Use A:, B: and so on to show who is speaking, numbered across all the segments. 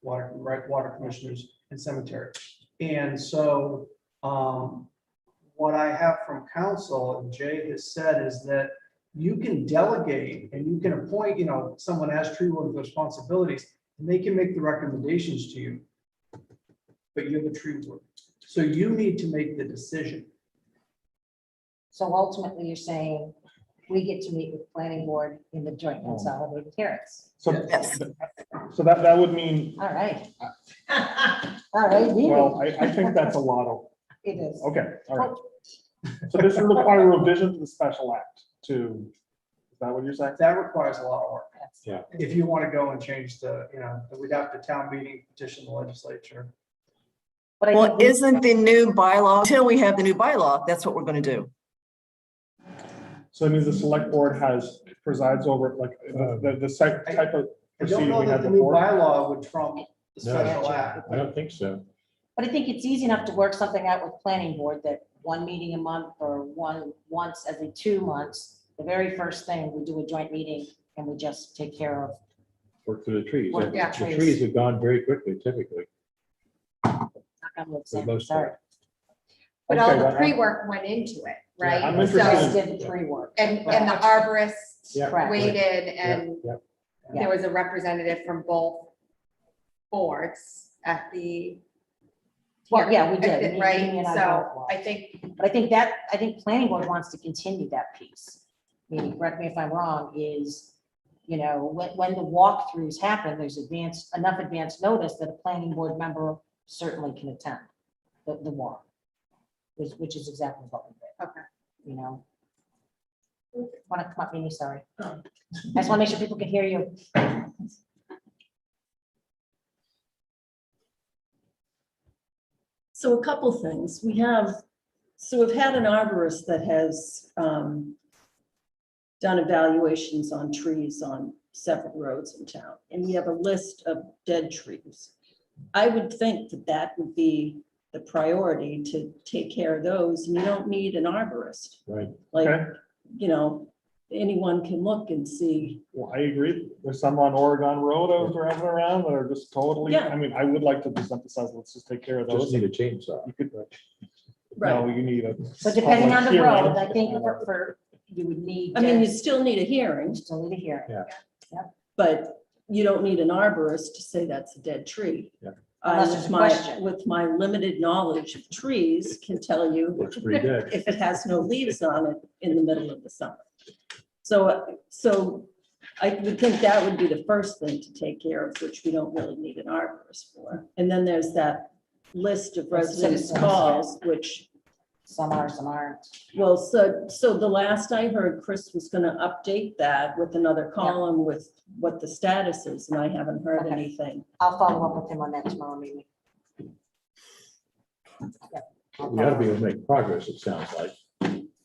A: water, right, water commissioners and cemetery. And so, um, what I have from council, and Jay has said, is that you can delegate and you can appoint, you know, someone as tree warden's responsibilities, and they can make the recommendations to you. But you're the tree warden, so you need to make the decision.
B: So ultimately, you're saying we get to meet with the planning board in the joint
C: Oh.
B: consolidated hearings.
D: So,
E: Yes.
D: so that, that would mean,
B: All right. All right,
D: well,
B: deal.
D: I, I think that's a lot of,
B: It is.
D: okay, all right. So this would require revision to the special act to, is that what you're saying?
A: That requires a lot of work.
B: That's-
A: If you want to go and change the, you know, we'd have to town meeting petition the legislature.
B: But I
E: Well,
B: think, we-
E: isn't the new bylaw, until we have the new bylaw, that's what we're going to do.
D: So it means the select board has, presides over like the, the- the site type of
A: I don't
D: proceeding
A: know
D: we
A: that
D: had
A: the new
D: before.
A: bylaw would trump the
C: No.
A: special act.
C: I don't think so.
B: but I think it's easy enough to work something out with planning board that one meeting a month or one, once every two months, the very first thing, we do a joint meeting and we just take care of.
C: Work through the trees.
B: Work
C: The
B: through the trees.
C: trees have gone very quickly typically.
B: knock on wood,
C: For the
B: Sam,
C: most
B: sorry.
F: But
D: Okay,
F: all
D: well,
F: the
D: I'm-
F: pre-work went into it, right?
D: I'm
F: So-
B: You guys
D: interested
B: did the tree work.
F: And, and the arborist
C: Yeah,
B: Correct.
F: waited
C: Yeah,
F: and
C: yeah.
F: there was a representative from both boards at the.
B: Well, yeah, we
F: I
B: did.
F: think,
B: We- we
F: Right,
B: and I both
F: so
B: were.
F: I think,
B: But I think that, I think planning board wants to continue that piece. Maybe, correct me if I'm wrong, is, you know, when, when the walkthroughs happen, there's advance, enough advance notice that a planning board member certainly can attend the, the walk. Which, which is exactly what we did.
F: Okay.
B: You know? Want to come up, Mimi, sorry. I
G: Oh.
B: just want to make sure people can hear you.
G: So a couple things. We have, so we've had an arborist that has um, done evaluations on trees on several roads in town, and we have a list of dead trees. I would think that that would be the priority to take care of those, and you don't need an arborist.
C: Right.
G: Like,
D: Okay.
G: you know, anyone can look and see.
D: Well, I agree. There's some on Oregon Road I was driving around that are just totally,
G: Yeah.
D: I mean, I would like to just emphasize, let's just take care of
C: Just
D: those.
C: need a chainsaw.
D: You could, no, you need a.
B: So depending on the
D: public
B: road,
D: hearing.
B: I think for, for- you would need.
G: I mean, you
B: to-
G: still need a hearing,
B: Still need to hear.
G: but you don't need an arborist to say that's a dead tree.
C: Yeah.
G: I,
B: Unless there's
G: with
B: a
G: my,
B: question.
G: with my limited knowledge of trees, can tell you
C: Looks pretty dead.
G: if it has no leaves on it in the middle of the summer. So, uh, so I would think that would be the first thing to take care of, which we don't really need an arborist for. And then there's that list of residents'
B: Citizens.
G: calls, which
B: Some are, some aren't.
G: well, so, so the last I heard, Chris was gonna update that with another column with what the status is, and I haven't heard
B: Okay.
G: anything.
B: I'll follow up with him on that tomorrow meeting. Yep, I'll
C: We ought to be
B: follow
C: able to make progress, it sounds like,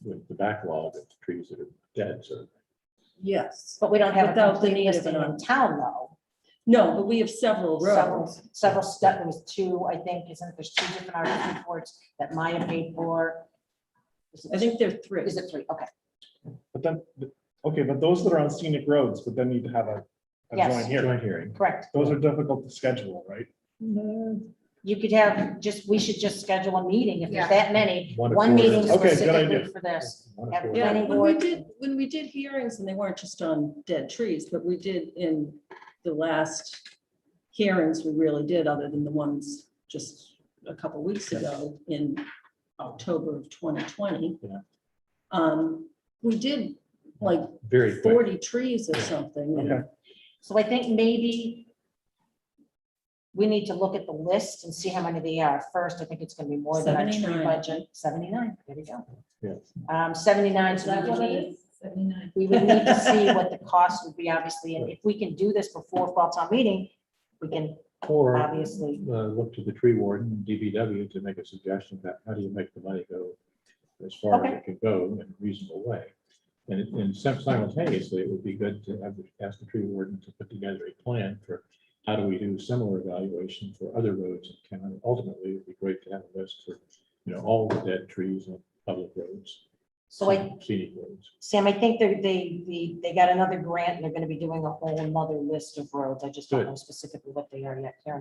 C: with the backlog of trees that are dead, so.
G: Yes.
B: up. But we don't have a
G: Without the
B: complete
G: need of
B: listing
G: an
B: in
G: arm.
B: town, though.
G: No, but we have several
B: Several,
G: roads.
B: several stuff, there was two, I think, isn't, it? there's two different article reports that Maya paid for. Is
G: I
B: it-
G: think there are three.
B: Is it three? Okay,
D: But then, okay, but those that are on scenic roads, but then need to have a, a
B: Yes.
D: joint hearing.
C: Joint hearing.
B: correct.
D: Those are difficult to schedule, right?
G: Mm-hmm.
B: You could have, just, we should just schedule a meeting if
F: Yeah.
B: there's that many.
C: One
B: One
C: accord.
B: meeting
D: Okay, good
B: specifically
D: idea.
B: for this.
C: One
B: Yeah.
C: accord.
G: Yeah,
B: planning
G: when we
B: board.
G: did, when we did hearings, and they weren't just on dead trees, but we did in the last hearings, we really did, other than the ones just a couple weeks ago in October of twenty twenty.
C: Yeah.
G: Um, we did like
C: Very quick.
G: forty trees or something.
D: Okay.
B: So I think maybe we need to look at the list and see how many they are first. I think it's gonna be more than our tree
G: 79.
B: budget. Seventy-nine, there we go.
C: Yeah.
B: Um, seventy-nine,
G: Is
B: so
G: that
B: we
G: what
B: would
G: it
B: need, we would need to see what the cost would be, obviously, and if we can do this before fall town meeting, we can
C: Or uh,
B: obviously,
C: look to the tree warden, DBW, to make a suggestion about how do you make the money go as far as it could go in a reasonable way. And it- and sim- simultaneously, it would be good to have, the- ask the tree warden to put together a plan for how do we do similar evaluation for other roads in town. Ultimately, it'd be great to have a list for, you know, all the dead trees on public roads,
B: so I,
C: scenic roads.
B: Sam, I think they're, they, they, they got another grant, and they're gonna be doing a whole nother list of roads. I just don't
C: Good.
B: know specifically what they are yet, Karen.